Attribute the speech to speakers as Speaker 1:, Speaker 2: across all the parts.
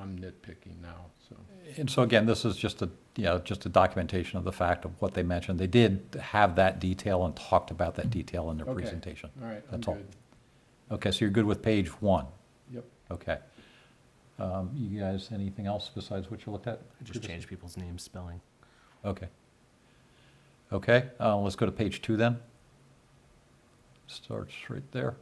Speaker 1: I'm nitpicking now, so.
Speaker 2: And so again, this is just a, you know, just a documentation of the fact of what they mentioned. They did have that detail and talked about that detail in their
Speaker 1: Okay.
Speaker 2: presentation.
Speaker 1: All right, I'm
Speaker 2: That's all.
Speaker 1: good.
Speaker 2: Okay, so you're good with page one?
Speaker 1: Yep.
Speaker 2: Okay. Um, You guys, anything else besides what you looked at?
Speaker 3: Just change people's names, spelling.
Speaker 2: Okay. Okay, uh, let's go to page two then. Starts right there.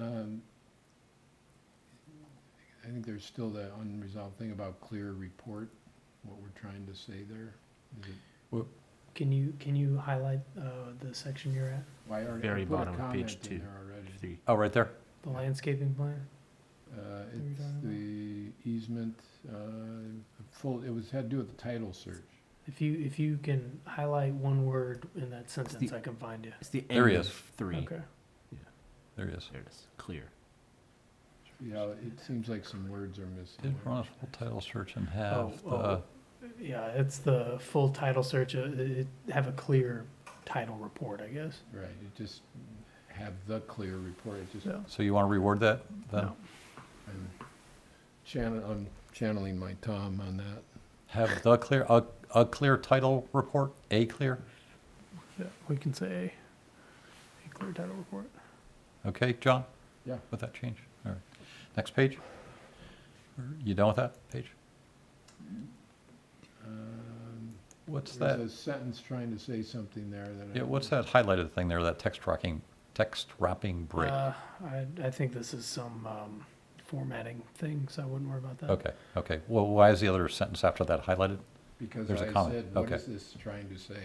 Speaker 1: Um, I think there's still that unresolved thing about clear report, what we're trying to say there. Is it-
Speaker 4: Can you, can you highlight, uh, the section you're at,
Speaker 1: Well, I already, I
Speaker 3: Very
Speaker 1: put a
Speaker 3: bottom of page
Speaker 1: comment in
Speaker 3: two.
Speaker 1: there already.
Speaker 3: Three.
Speaker 2: Oh, right there?
Speaker 4: the landscaping plan?
Speaker 1: Uh,
Speaker 4: we
Speaker 1: it's
Speaker 4: talking about?
Speaker 1: the easement, uh, full, it was, had to do with the title search.
Speaker 4: If you, if you can highlight one word in that sentence, I can find you.
Speaker 3: It's the
Speaker 2: There he
Speaker 3: end of
Speaker 2: is.
Speaker 3: three.
Speaker 4: Okay.
Speaker 2: There he is.
Speaker 3: There it is. Clear.
Speaker 1: Yeah, it seems like some words are missing.
Speaker 2: Did run a full title search and
Speaker 4: Oh,
Speaker 2: have the,
Speaker 4: oh, yeah, it's the full title search, uh, it, have a clear title report, I guess.
Speaker 1: Right, it just have the clear report, it just,
Speaker 4: No.
Speaker 2: so you want to reward that then?
Speaker 4: No.
Speaker 1: I'm channel, I'm channeling my Tom on that.
Speaker 2: Have the clear, a, a clear title report, a clear?
Speaker 4: Yeah, we can say a clear title report.
Speaker 2: Okay, John?
Speaker 1: Yeah.
Speaker 2: With that change? All right. Next page? Or You done with that page?
Speaker 1: Um,
Speaker 2: What's that?
Speaker 1: There's a sentence trying to say something there that. I
Speaker 2: Yeah, what's
Speaker 1: don't-
Speaker 2: that highlighted thing there, that text rocking, text wrapping break?
Speaker 4: Uh, I, I think this is some, um, formatting thing, so I wouldn't worry about that.
Speaker 2: Okay, okay. Well, why is the other sentence after that highlighted?
Speaker 1: Because
Speaker 2: there's a
Speaker 1: I
Speaker 2: comment,
Speaker 1: said, what
Speaker 2: okay.
Speaker 1: is this trying to say?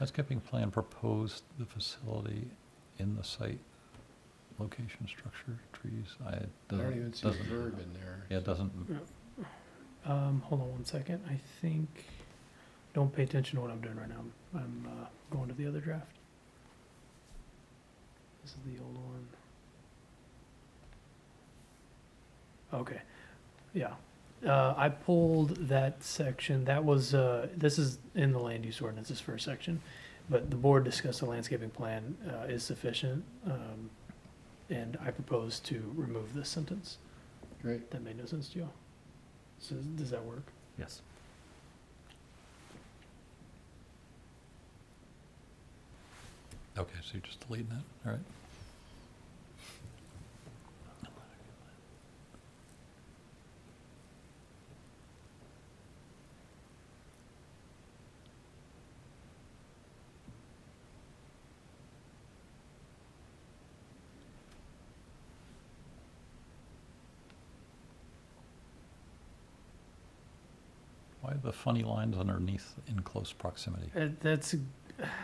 Speaker 2: Landscaping plan proposed the facility in the site, location, structure, trees, I, it
Speaker 1: I don't
Speaker 2: doesn't,
Speaker 1: even see a
Speaker 2: doesn't,
Speaker 1: verb in there.
Speaker 2: yeah, it doesn't,
Speaker 4: Um, hold on one second. I think, don't pay attention to what I'm doing right now. I'm, uh, going to the other draft. This is the old one. Okay, yeah. Uh, I pulled that section. That was, uh, this is in the land use ordinance, this first section. But the board discussed the landscaping plan, uh, is sufficient. Um, and I propose to remove this sentence.
Speaker 1: Great,
Speaker 4: That made no sense to y'all. So does- does that work?
Speaker 3: Yes.
Speaker 2: okay, so you're just deleting it, all right. Why the funny lines underneath in close proximity?
Speaker 4: Uh, that's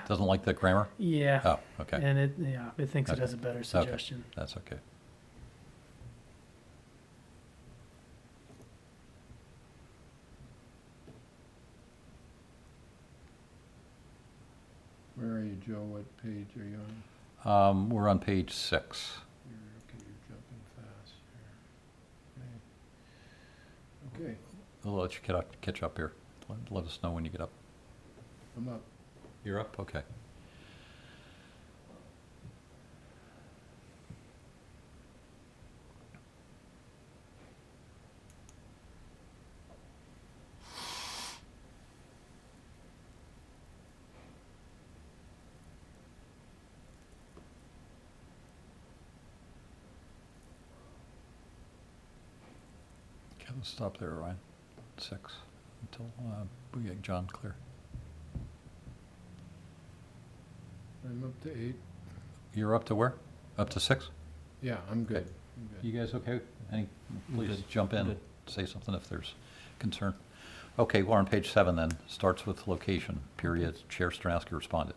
Speaker 2: Doesn't like the grammar?
Speaker 4: yeah,
Speaker 2: Oh, okay,
Speaker 4: and it yeah it thinks
Speaker 2: Okay.
Speaker 4: it has a better suggestion.
Speaker 2: that's okay.
Speaker 1: where are you, Joe? What page are you on?
Speaker 2: Um, we're on page six.
Speaker 1: You're, okay, you're jumping fast here. Okay. Okay,
Speaker 2: I'll let you get up, catch up here. Let- Let us know when you get up.
Speaker 1: I'm up.
Speaker 2: You're up? Okay. Okay, let's stop there, Ryan. Six, until uh, we get John clear.
Speaker 1: I'm up to eight.
Speaker 2: You're up to where? Up to six?
Speaker 1: Yeah, I'm good. I'm good.
Speaker 2: You guys okay? Any,
Speaker 3: I'm
Speaker 2: please
Speaker 3: good.
Speaker 2: jump in,
Speaker 3: Good.
Speaker 2: say something if there's concern. Okay, we're on page seven then, starts with location, period, Chair Stransky responded.